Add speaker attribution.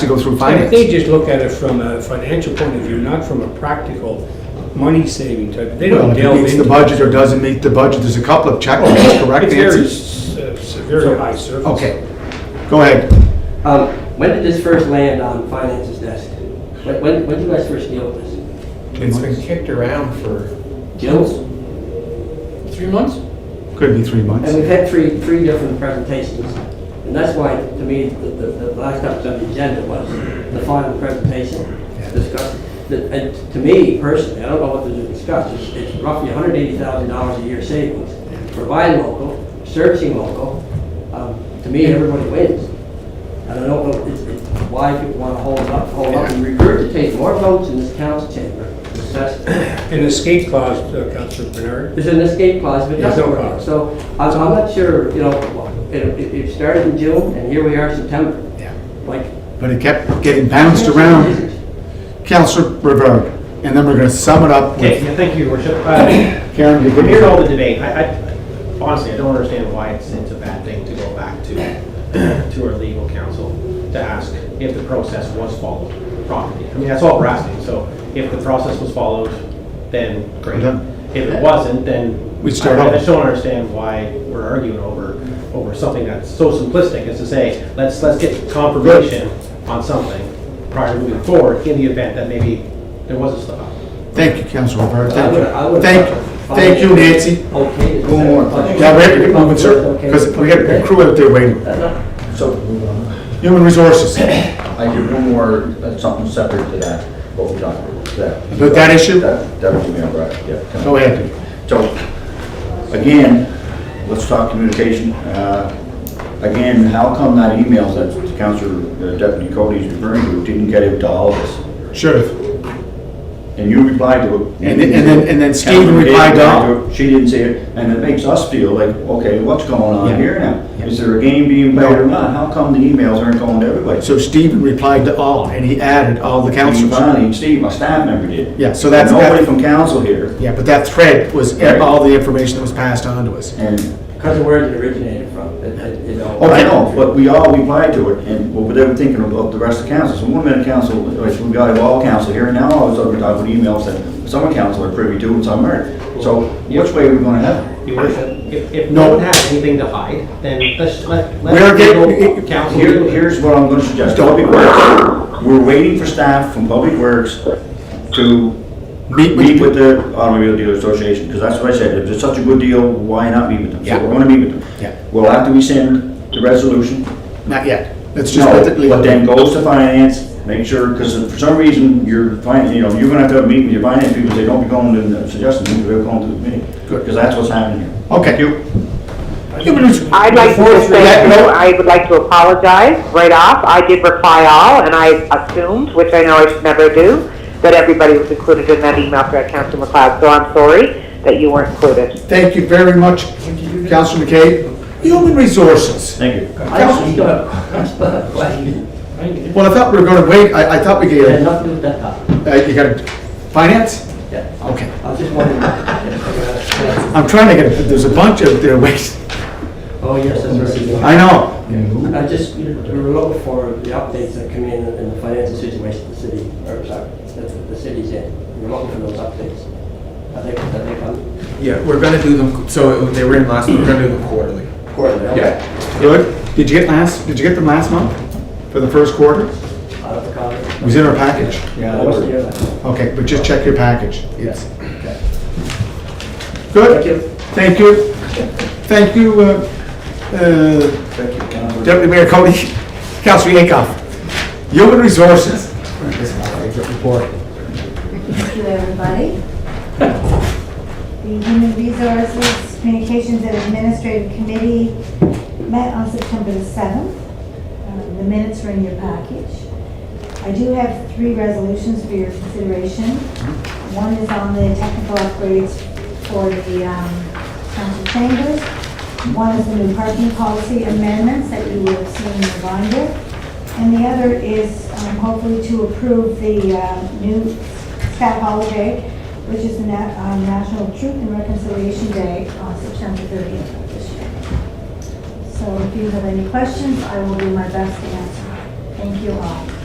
Speaker 1: to go through
Speaker 2: I
Speaker 1: finance.
Speaker 2: think just look at it from a financial point of view, not from a practical money-saving type. They
Speaker 1: Well,
Speaker 2: Oh, don't
Speaker 1: if it
Speaker 2: delve
Speaker 1: meets the
Speaker 2: into.
Speaker 1: budget or doesn't meet the budget, there's a couple of checklists, correct
Speaker 2: It's very,
Speaker 1: answers?
Speaker 2: s- uh, s- very high surface.
Speaker 1: Okay, go ahead.
Speaker 3: Um, when did this first land on finances desk? When, when, when did you guys first deal with this?
Speaker 4: It's been kicked around for,
Speaker 3: Gills?
Speaker 5: Three months?
Speaker 1: Could be three
Speaker 3: And
Speaker 1: months.
Speaker 3: we've had three, three different presentations. And that's why, to me, the, the, the last up on the agenda was the final presentation discussed. The- And to me personally, I don't know what to discuss, it's, it's roughly hundred eighty thousand dollars a year savings. Provide local, servicing local, um, to me, everybody wins. And I don't know it's- it's why people want to hold up, hold up and regurgitate more votes in this council chamber. It's just-
Speaker 2: An escape clause, uh, Councilor Bernard.
Speaker 3: there's an escape clause, but it
Speaker 2: There's
Speaker 3: doesn't
Speaker 2: no
Speaker 3: work. out.
Speaker 2: clause.
Speaker 3: So I'm, I'm not sure, you know, it, it it started in June and here we are September.
Speaker 1: Yeah.
Speaker 3: Like.
Speaker 1: But it kept getting bounced around. Counselor Rivera, and then we're gonna sum it up
Speaker 6: Okay,
Speaker 1: with
Speaker 6: yeah, thank you, your worship. Uh,
Speaker 1: Karen. you
Speaker 6: From
Speaker 1: good?
Speaker 6: here to all the debate, I, I, honestly, I don't understand why it's, it's a bad thing to go back to, to our legal counsel to ask if the process was followed properly. I mean, that's all we're asking, so if the process was followed, then great.
Speaker 1: Done.
Speaker 6: If it wasn't, then.
Speaker 1: We start
Speaker 6: I- I
Speaker 1: over.
Speaker 6: just don't understand why we're arguing over, over something that's so simplistic as to say, let's, let's get confirmation on something prior to moving forward in the event that maybe there was a slip up.
Speaker 1: Thank you, Counselor Rivera,
Speaker 3: I
Speaker 1: thank you.
Speaker 3: would- I would-
Speaker 1: Thank, thank you, Nancy.
Speaker 3: Okay.
Speaker 1: Go on. Now, we have to get moving, sir, because we got a crew out there waiting.
Speaker 7: So, uh,
Speaker 1: Human Resources,
Speaker 7: I do one more, uh, something separate to that, what we talked about. that-
Speaker 1: About that issue?
Speaker 7: That, that was me, all right, yeah.
Speaker 1: go ahead.
Speaker 7: So, again, let's talk communication. Uh, Again, how come that email that Councilor uh, Deputy Cody's referring to didn't get out to all of us?
Speaker 1: Sheriff.
Speaker 7: And you replied to it.
Speaker 1: And then- and then- and then Stephen
Speaker 7: Councilor Hayes
Speaker 1: replied to all.
Speaker 7: it, She didn't see it, and it makes us feel like, okay, what's going
Speaker 1: Yeah.
Speaker 7: on here now? Is there a game being played or not? How come the emails aren't going to everybody?
Speaker 1: So Stephen replied to all, and he added all the
Speaker 7: And
Speaker 1: councilors.
Speaker 7: Bonnie and Steve, my staff member did.
Speaker 1: Yeah, so that's-
Speaker 7: Nobody from council here,
Speaker 1: Yeah, but that thread was all the information that was passed on to us.
Speaker 7: and,
Speaker 3: Because of where it originated from, it- it- you know.
Speaker 7: oh, I know, but we all replied to it, and, well, without thinking about the rest of council, so one minute council, like, we got all council here, and now I was, I would email that some of council are privy to and some aren't, so which way are we gonna have? it?
Speaker 6: Your Worship, if, if
Speaker 1: No.
Speaker 6: no one has anything to hide, then let's, let, let.
Speaker 1: We're getting-
Speaker 6: legal Counsel.
Speaker 7: Here,
Speaker 6: do it.
Speaker 7: here's what I'm gonna suggest, Public Works, we're waiting for staff from Public Works to
Speaker 1: Meet
Speaker 7: meet
Speaker 1: with,
Speaker 7: with the Automobile Dealer Association, because that's what I said, if it's such a good deal, why not meet with them?
Speaker 1: Yeah.
Speaker 7: So we're gonna meet with them.
Speaker 1: Yeah.
Speaker 7: Well, after we send the resolution,
Speaker 1: not yet. Let's just let it
Speaker 7: no,
Speaker 1: leave.
Speaker 7: but then goes to finance, make sure, because for some reason, your fin, you know, you're gonna have to meet with your finance people, say, don't be going to the suggestion, meeting, they're going to the meeting.
Speaker 1: Good.
Speaker 7: Because that's what's happening here.
Speaker 1: Okay.
Speaker 7: You,
Speaker 1: Human Res-
Speaker 8: I'd like
Speaker 1: Before
Speaker 8: to
Speaker 1: we let
Speaker 8: say,
Speaker 1: go-
Speaker 8: I would like to apologize right off. I did reply all, and I assumed, which I know I should never do, that everybody was included in that email thread, Councilor McLeod, so I'm sorry that you weren't included.
Speaker 1: Thank you very much, Councilor McKay. Human Resources.
Speaker 7: thank you.
Speaker 3: I actually still have, I still have a question.
Speaker 1: Well, I thought we were gonna wait, I, I thought we
Speaker 3: It had
Speaker 1: gave,
Speaker 3: nothing to do with that topic.
Speaker 1: uh, you got, finance?
Speaker 3: Yeah.
Speaker 1: Okay.
Speaker 3: I was just wondering. Oh,
Speaker 1: I'm trying to get, there's a bunch out there waiting.
Speaker 3: yes, that's right.
Speaker 1: I know.
Speaker 3: I just, we were looking for the updates that come in in the financial situation of the city, or sorry, that the city's in. We're looking for those updates. I think, I think I'm
Speaker 4: yeah, we're gonna do them, so they were in last, we're gonna do them quarterly.
Speaker 3: quarterly. okay.
Speaker 1: Good. Did you get last, did you get them last month? For the first quarter?
Speaker 3: Out of the
Speaker 1: It
Speaker 3: comment.
Speaker 1: was in our package.
Speaker 7: Yeah,
Speaker 3: I
Speaker 7: that
Speaker 3: wasn't
Speaker 7: was-
Speaker 3: here that.
Speaker 1: Okay, but just check your package. It's, good.
Speaker 3: Thank you.
Speaker 1: Thank you. Thank you, uh, uh,
Speaker 7: thank you, Councilor.
Speaker 1: Deputy Mayor Cody, Councilor Yankoff. Human Resources. report.
Speaker 9: Thank you, everybody. The Human Resources, Communications and Administrative Committee met on September the 7th. Um, The minutes are in your package. I do have three resolutions for your consideration. One is on the technical upgrades for the um, council chambers. One is the new parking policy amendments that you will have seen in the binder. And the other is um, hopefully to approve the uh, new staff holiday, which is the Nat- um, National Truth and Reconciliation Day on September 30th of this year. So if you have any questions, I will do my best to answer. Thank you all.